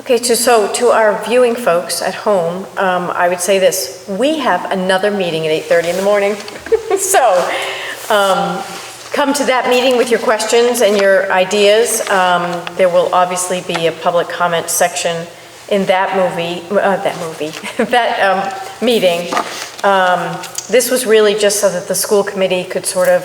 Okay, to- so to our viewing folks at home, um, I would say this, we have another meeting at 8:30 in the morning. So um, come to that meeting with your questions and your ideas. Um, There will obviously be a public comment section in that movie, uh, that movie, that um, meeting. Um, This was really just so that the school committee could sort of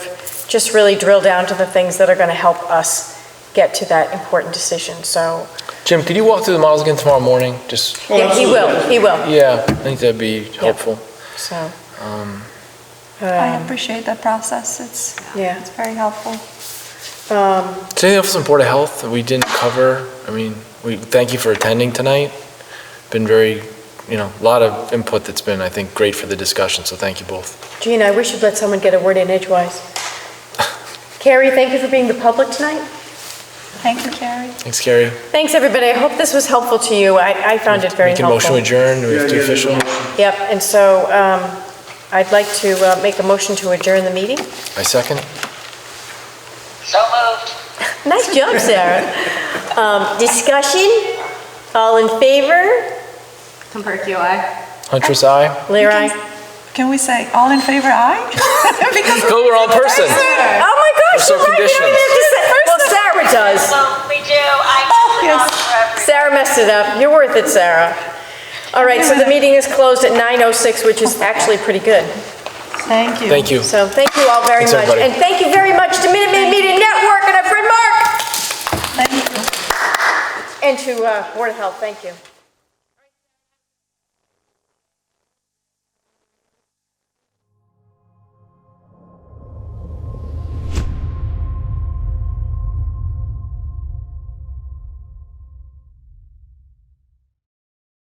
just really drill down to the things that are going to help us get to that important decision. So Jim, could you walk through the models again tomorrow morning? Just, yeah, he will, he will, yeah, I think that'd be helpful. so. Um, I um, appreciate that process. It's, Yeah. it's very helpful. Um, Is there anything else on Board of Health that we didn't cover? I mean, we, thank you for attending tonight. Been very, you know, a lot of input that's been, I think, great for the discussion, so thank you both. Gina, I wish you'd let someone get a word in edgewise. Carrie, thank you for being the public tonight. Thank you, Carrie. Thanks, Carrie. Thanks, everybody. I hope this was helpful to you. I, I found it very Make a motion to helpful. adjourn, do we have to official? Yep, and so, um, I'd like to uh, make a motion to adjourn the meeting. I second. So moved. Nice job, Sarah. Um, discussion, all in favor? Compercular. Huntress, aye. Lear, You aye. Can we say all in favor, aye? Because Go, we're all in person. Oh my gosh, so you like it? I didn't have to say- Well, Sarah does. Well, we do, I Oh, know yes. for everyone. Sarah messed it up. You're worth it, Sarah. All right, so the meeting is closed at 9:06, which is actually pretty good. Thank you. Thank you. So thank you all very Thanks, much. everybody. And thank you very much to Minute Maid Media Network and our friend Mark, Thank you. and to uh, Board of Health, thank you.